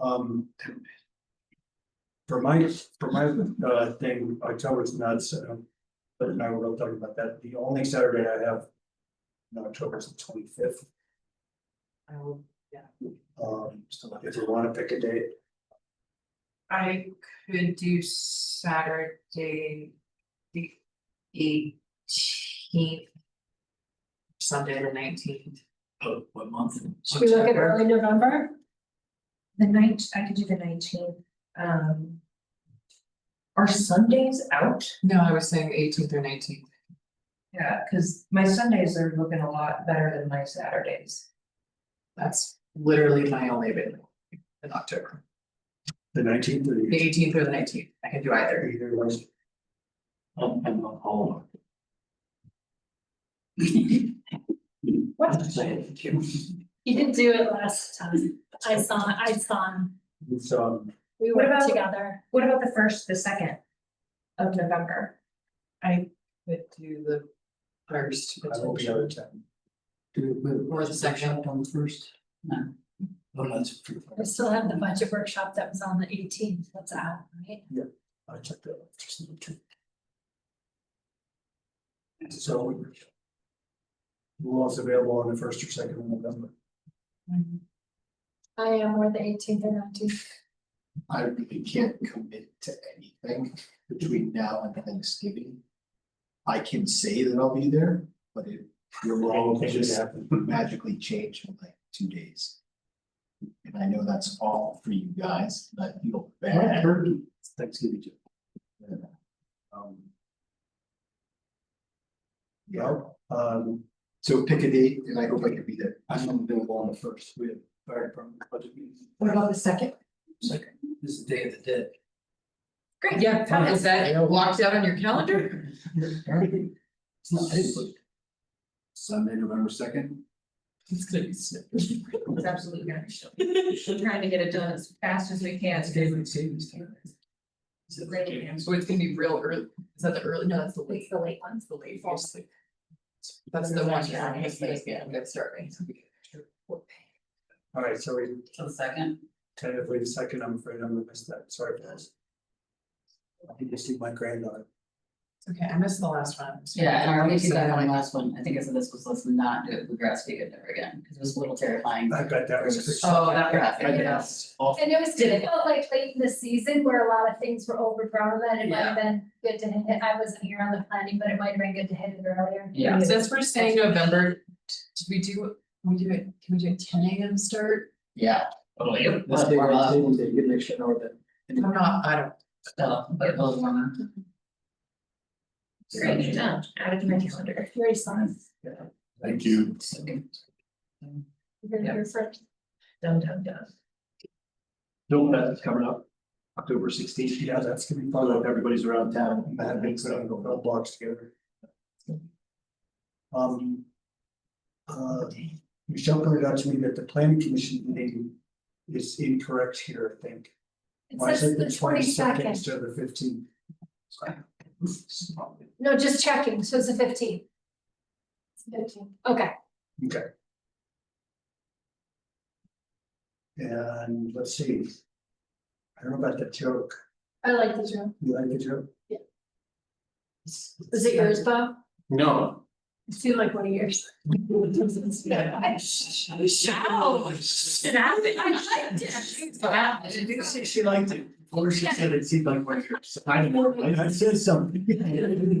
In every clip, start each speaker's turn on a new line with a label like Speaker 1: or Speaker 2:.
Speaker 1: Um. For my, for my uh thing, October's not set up, uh, but now we're talking about that, the only Saturday I have. In October is the twenty fifth,
Speaker 2: Oh,
Speaker 1: um, so if you wanna pick a date,
Speaker 2: I could do Saturday. The eighteenth. Sunday the nineteenth.
Speaker 3: Oh, what month?
Speaker 4: Should we look at
Speaker 2: October.
Speaker 4: early November?
Speaker 5: The night, I could do the nineteenth, um. Are Sundays out?
Speaker 2: No, I was saying eighteenth or nineteenth.
Speaker 5: Yeah, cause my Sundays are looking a lot better than my Saturdays.
Speaker 2: That's literally my only available in October.
Speaker 1: the nineteenth or
Speaker 2: The
Speaker 1: the
Speaker 2: eighteenth or the nineteenth. I can do either.
Speaker 1: either one's
Speaker 3: I'm, I'm not all
Speaker 5: What?
Speaker 3: I'm saying, you.
Speaker 4: You didn't do it last time. I saw, I saw, him.
Speaker 1: It's um,
Speaker 4: we
Speaker 5: What
Speaker 4: were
Speaker 5: about-
Speaker 4: together.
Speaker 5: What about the first, the second of November?
Speaker 2: I could do the first.
Speaker 1: I will be out of town.
Speaker 2: Or the second.
Speaker 3: On the first? No. Oh, no, it's pretty
Speaker 4: We
Speaker 3: far.
Speaker 4: still have the budget workshop that was on the eighteenth, that's out, right?
Speaker 1: I checked that. out, just in the trip. So. Who else available on the first or second of November?
Speaker 5: Mm-hmm.
Speaker 4: I am, or the eighteenth or nineteenth.
Speaker 6: I really can't commit to anything between now and Thanksgiving. I can say that I'll be there, but it, your role will
Speaker 1: Anything should
Speaker 6: just
Speaker 1: happen.
Speaker 6: magically change in like two days. And I know that's all for you guys, and I feel bad. It's Thanksgiving. too. Yeah. Um, Yeah,
Speaker 1: Well, um,
Speaker 6: so pick a date and I hope I can be there. I'm available on the first, we have fire department budget meeting.
Speaker 5: What about the second?
Speaker 3: Second, this is Day of the Dead.
Speaker 5: Great.
Speaker 2: Yeah, is that blocked out on your calendar?
Speaker 3: It's not, it's like,
Speaker 6: Sunday, November second.
Speaker 3: it's gonna be sick.
Speaker 5: It's absolutely gonna be short. We're trying to get it done as fast as we can.
Speaker 3: That's David Savings Time. Is it like-
Speaker 5: Great.
Speaker 2: So it's gonna be real early. Is that the early? No, that's the late.
Speaker 5: It's the late
Speaker 2: That's the late. That's the one. yeah, I'm just like, yeah, I'm gonna start right.
Speaker 1: all right, so we
Speaker 3: Till the second?
Speaker 1: tentatively the second, I'm afraid I'm gonna miss that, sorry guys. I think I see my granddaughter.
Speaker 2: Okay, I missed the last one.
Speaker 7: Yeah, and I already did that on the last one, I think I said this was, let's not do it with grass fed ever again, because it was a little terrifying.
Speaker 1: I bet that was.
Speaker 2: Oh, that graphic,
Speaker 7: graphic,
Speaker 2: yes.
Speaker 4: And it was difficult, like late in the season where a lot of things were overgrown, then it might have been good to hit it, I wasn't here on the planning, but it might have been good to hit it earlier.
Speaker 7: Yeah,
Speaker 2: Since we're saying November, d- did we do, we do it, can we do a ten AM start?
Speaker 7: yeah.
Speaker 3: Oh,
Speaker 7: It
Speaker 6: Let's
Speaker 7: was
Speaker 6: take
Speaker 7: warm
Speaker 6: our
Speaker 7: up,
Speaker 6: table day, you make sure know that.
Speaker 2: I'm not, I don't,
Speaker 7: so, but it was warm up.
Speaker 5: Great, done. Added to my calendar.
Speaker 4: Very soon,
Speaker 6: Thank you.
Speaker 4: you're here for.
Speaker 5: Done, done, done.
Speaker 6: Don't let that's coming up, October sixteenth,
Speaker 1: Yeah, that's gonna be
Speaker 6: I don't know
Speaker 1: fun,
Speaker 6: if everybody's around town.
Speaker 1: that makes it go all blocks together. Um. Uh, Michelle pointed out to me that the planning commission meeting is incorrect here, I think.
Speaker 4: It
Speaker 1: Why is
Speaker 4: says
Speaker 1: it
Speaker 4: the twenty
Speaker 1: second
Speaker 4: second,
Speaker 1: instead of the fifteenth?
Speaker 4: no, just checking, so it's the fifteenth. Fifteenth, okay,
Speaker 1: Okay. And let's see. I don't know about the joke,
Speaker 4: I like the drill,
Speaker 1: you like the joke?
Speaker 4: was it yours, Bob?
Speaker 3: No.
Speaker 4: It seemed like one of yours.
Speaker 2: yeah. Wow. It happened. I liked it. Wow.
Speaker 3: I didn't say she liked it, or she said it seemed like one of yours. I know, I-
Speaker 1: I said something.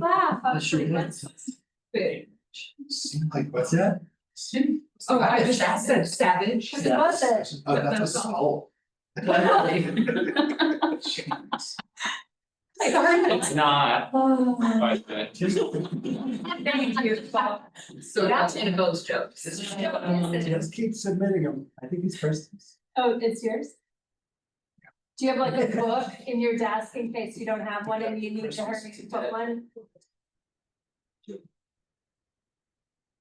Speaker 4: Laugh, I
Speaker 3: I
Speaker 4: was
Speaker 3: sure
Speaker 4: like,
Speaker 3: did.
Speaker 4: that's
Speaker 6: Seemed like
Speaker 1: What's that?
Speaker 2: Oh, I just said savage.
Speaker 4: It was it?
Speaker 6: Oh,
Speaker 2: That-
Speaker 6: that's a
Speaker 2: that's all.
Speaker 6: soul.
Speaker 3: It's not.
Speaker 1: Just-
Speaker 4: Thank you, Bob.
Speaker 2: So that's in a
Speaker 5: those jokes.
Speaker 1: Just keep submitting them. I think it's first.
Speaker 4: Oh, it's yours? Do you have like a book in your desk in case you don't have one and you need to hurry to put one?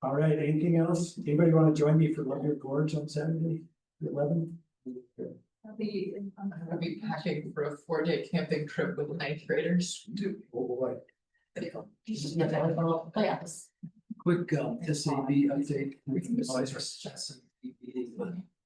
Speaker 1: All right, anything else? Anybody want to join me for Love Your Gorge on Saturday, the eleventh?
Speaker 2: I'll be, I'm gonna be packing for a four day camping trip with ninth graders.
Speaker 1: Oh, boy.
Speaker 7: Oh,
Speaker 3: Quick, um, S A B update.
Speaker 2: We can just-
Speaker 3: Always recess and be meeting, but